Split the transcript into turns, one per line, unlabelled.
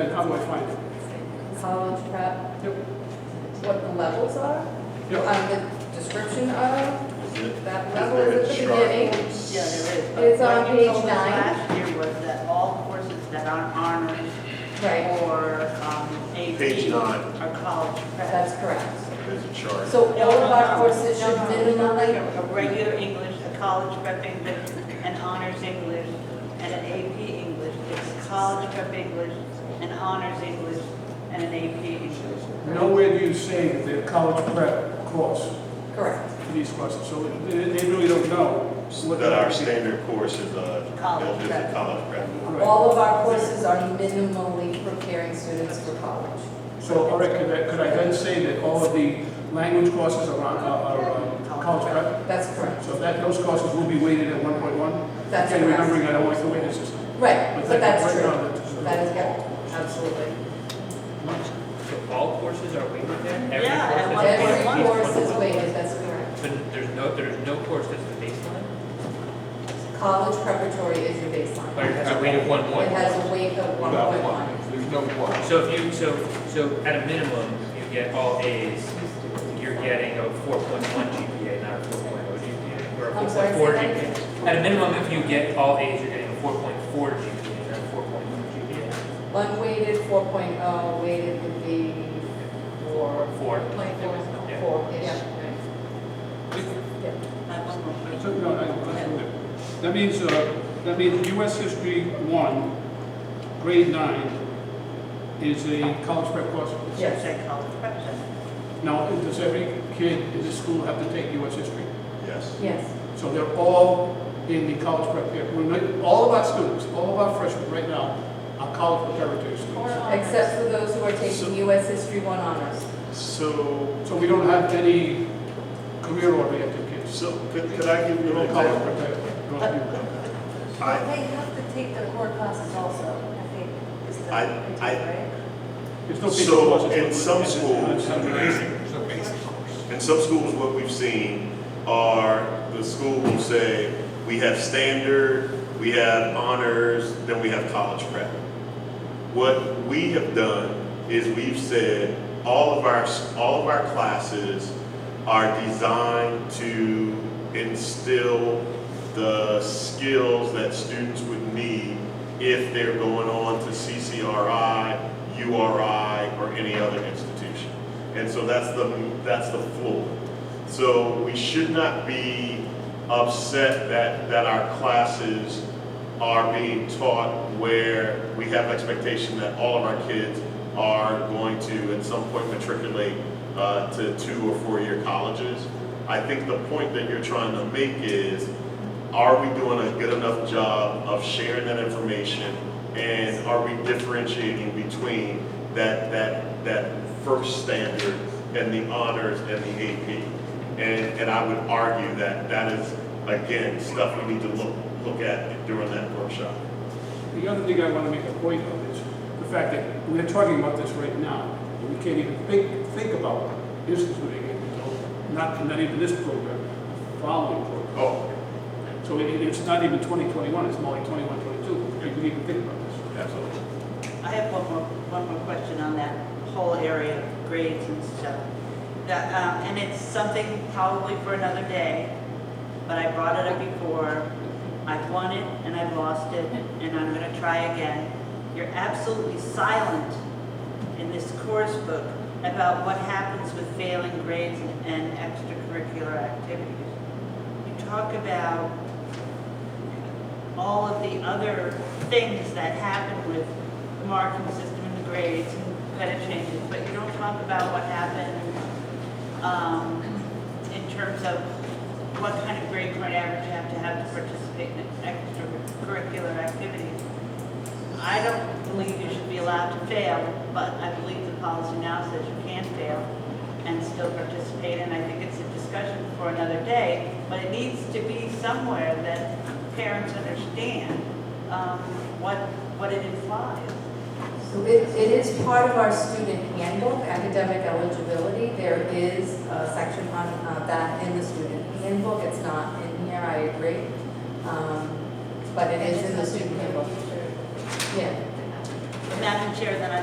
And how do I find it?
College prep,
Yep.
what the levels are,
Yep.
um, the description of,
Is it-
that
is
level
there
is at
a
the
chart?
beginning.
Yeah, there is.
It's on
But what you
page
told us
nine.
Last year was that all courses that aren't honors
Right,
or um,
Page
AP
nine.
are college prep.
that's correct.
There's a chart.
So
No,
all of
no,
our
no,
courses
no,
should
no, no, like
minimally,
a- A regular English, a college prep English, an honors English, and an AP English. It's college prep English, an honors English, and an AP English.
Nowhere do you say that they're college prep course
correct,
for these courses, so they they really don't know. what
That our
they're-
standard course is a,
College
built as a
prep.
college prep.
Right.
all of our courses are minimally preparing students for college.
So, all right, could I, could I then say that all of the language courses are on, are, are uh, college prep?
That's correct,
So that, those courses will be weighted at one point one?
that's
Again, remembering
correct.
I don't like the way this is.
Right,
But
but that's
that-
true,
right now, it's-
that is, yeah, absolutely.
So all courses are weighted there? Every
Yeah,
course
and
is
one
Every
point one.
weighted?
course is weighted, that's correct.
But there's no, there's no course that's the baseline,
College preparatory is your
but
baseline.
it has a weight of one
It
one.
has a weight of one point one.
There's no one.
So if you, so, so at a minimum, you get all A's, you're getting a four point one GPA, not a four point oh GPA, or a
I'm
four
sorry,
point four
say that again.
GPA. At a minimum, if you get all A's, you're getting a four point four GPA, not a four point one GPA.
Unweighted, 4.0, weighted would be four.
Four.
Point
Yeah.
four, four-ish. Yeah.
I have one more question.
So, no, I- I- That means, uh, that means US History one, grade nine, is a college prep course?
Should say college prep.
Now, does every kid in this school have to take US history?
Yes.
Yes,
So they're all in the college prep here. We're not- All of our students, all of our freshmen right now are college preparatory students.
except for those who are
So-
taking US History 1 honors.
So,
So we don't have any career-oriented kids.
so could, could I give you
They're
an
all college
example?
prepared.
I-
They have to take the core classes also, I think, is the
I-
idea,
I-
right?
There's no big
So,
courses.
in some schools-
Some basic.
In some schools, what we've seen are the school will say, we have standard, we have honors, then we have college prep. What we have done is we've said, all of our, all of our classes are designed to instill the skills that students would need if they're going on to CCRI, URI, or any other institution. And so that's the, that's the floor. So we should not be upset that, that our classes are being taught where we have expectation that all of our kids are going to at some point matriculate uh, to two or four-year colleges. I think the point that you're trying to make is, are we doing a good enough job of sharing that information? And are we differentiating between that, that, that first standard and the honors and the AP? And, and I would argue that that is, again, stuff we need to look, look at during that workshop.
The other thing I want to make a point of is the fact that we're talking about this right now, and we can't even think, think about instituting it until, not, not even this program, the following program.
Oh,
So it, it's not even 2021, it's more like 21, 22, you can even think about this.
absolutely.
I have one more, one more question on that whole area of grades and stuff. That, um, and it's something probably for another day, but I brought it up before. I've won it and I've lost it, and I'm gonna try again. You're absolutely silent in this course book about what happens with failing grades and extracurricular activities. You talk about all of the other things that happen with the marking system and the grades and credit changes, but you don't talk about what happened um, in terms of what kind of grade point average you have to have to participate in extracurricular activities. I don't believe you should be allowed to fail, but I believe the policy now says you can fail and still participate, and I think it's a discussion for another day, but it needs to be somewhere that parents understand um, what, what it implies.
So it, it is part of our student handbook, academic eligibility. There is a section on uh, that in the student handbook. It's not in here, I agree. Um, But it is in the student handbook.
Teacher.
Yeah.
Madam Chair, then I